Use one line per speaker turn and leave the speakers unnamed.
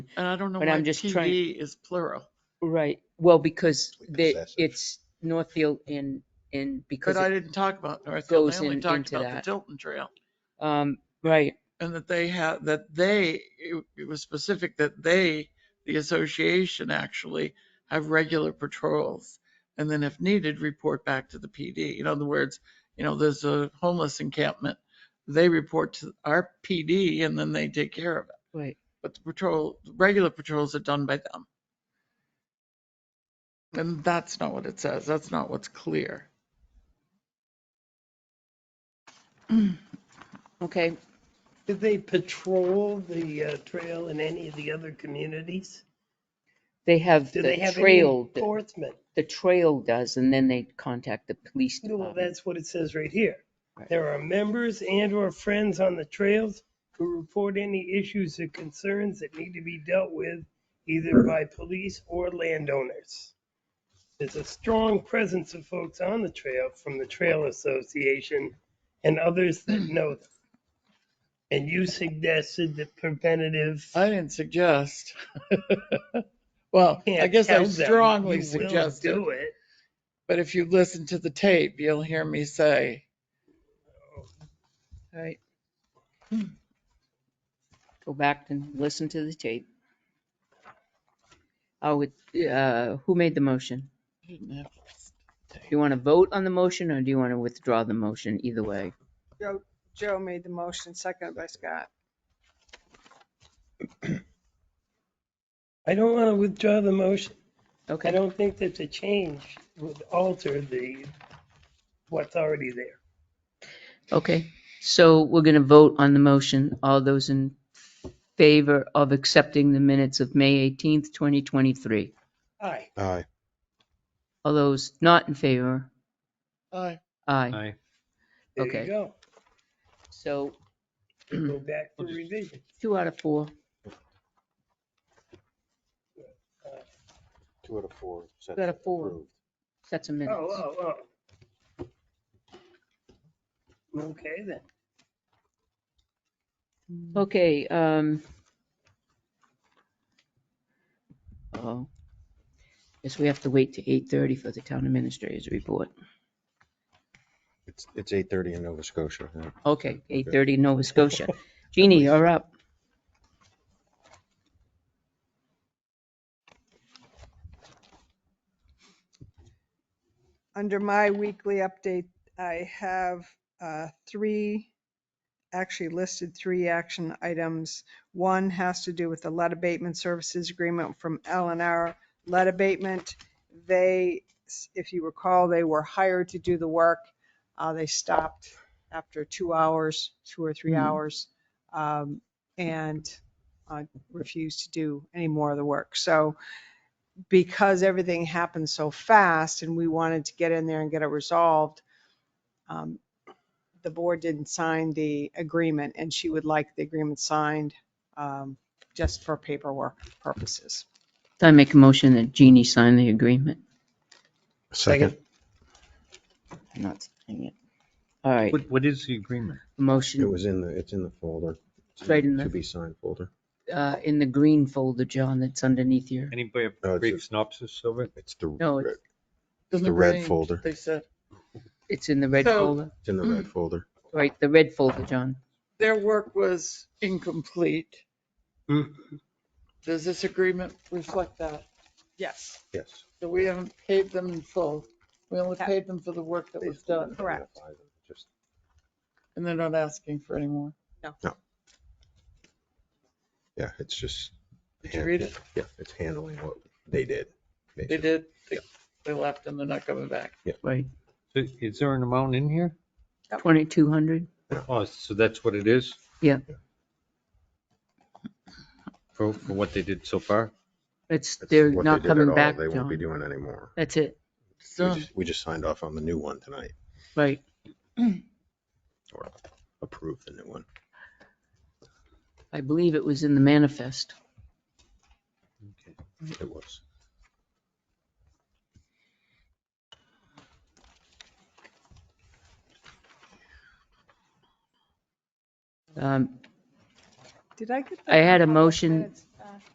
And I don't know
But
why
I'm just trying-
TV is plural.
Right, well, because
Like
the,
possessive.
it's Northfield and, and because,
But I
it-
didn't talk about Northfield. I
goes
only
in-
talked
into
about the
that.
Tilton Trail.
um, right,
And that they had, that they, it it was specific that they, the association actually, have regular patrols. And then if needed, report back to the PD. In other words, you know, there's a homeless encampment. They report to our PD and then they take care of it.
right.
But the patrol, regular patrols are done by them. And that's not what it says. That's not what's clear.
Okay,
Do they patrol the uh, trail in any of the other communities?
they have
Do they
the
have any
trail, that-
enforcement?
the trail does, and then they contact the police
Well,
department.
that's what it says right here.
Um, Right.
There are members and or friends on the trails who report any issues or concerns that need to be dealt with either by police or landowners. There's a strong presence of folks on the trail from the Trail Association and others that know them. And you suggested that preventative
I didn't suggest. Well, I
can't
guess I
tell them,
strongly
"You will
suggest it,
Do it.
but if you listen to the tape, you'll hear me say,
Right. Go back and listen to the tape. I would, uh, who made the motion? Do you want to vote on the motion or do you want to withdraw the motion? Either way.
Joe made the motion, seconded by Scott.
I don't want to withdraw the motion. I
Okay,
don't think that the change would alter the, what's already there.
okay. So we're going to vote on the motion. All those in favor of accepting the minutes of May 18th, 2023?
Aye.
Aye.
All those not in favor?
I,
Aye.
There you
Okay.
go.
So
Go back for revision.
two out of four.
Two out of four. sets
Two out of four.
approved.
That's a minute.
Oh, oh, oh. Okay, then.
Okay, um. Oh. Guess we have to wait to eight thirty for the town administrator's report.
It's, it's eight thirty in Nova Scotia. yeah.
Okay, eight thirty Nova Scotia. Jeannie, you're up.
Under my weekly update, I have uh, three, actually listed three action items. One has to do with the lead abatement services agreement from L and R Lead Abatement. They, if you recall, they were hired to do the work. Uh, They stopped after two hours, two or three
Mhm.
hours, um, and uh, refused to do any more of the work. So because everything happened so fast and we wanted to get in there and get it resolved, um, the board didn't sign the agreement and she would like the agreement signed um, just for paperwork purposes.
I make a motion that Jeannie sign the agreement,
Second.
not signing it. All right,
What, what is the agreement?
It
motion,
was in the, it's in the folder. It's
Right in the-
To be signed folder.
uh, in the green folder, John, that's underneath your,
Anybody have
No,
a
it's
brief
just-
synopsis of it?
It's the,
No, it's-
red- the red folder.
They said,
it's in the red
So-
folder,
it's in the red folder.
right, the red folder, John.
their work was incomplete.
Mm-hmm.
Does this agreement reflect that?
Yes,
Yes.
That we haven't paid them in full. We only
Yeah.
paid them for the work that was done
Correct.
Just-
and they're not asking for any more.
Yeah, it's just.
Did you read it?
Yeah, it's handling what they did.
They
basically.
did, they- they left and they're not coming back.
Right,
So Is there an amount in here?
twenty-two hundred,
Oh, so that's what it is?
Yeah.
For, for what they did so far?
it's,
That's
they're
what
not
they did at
coming
all.
back,
They won't be
John,
doing anymore.
that's it,
We
So,
just, we just signed off on the new one tonight
right.
or approved the new one.
I believe it was in the manifest.
It was.
Um,
did I get? the-
I Um, had a motion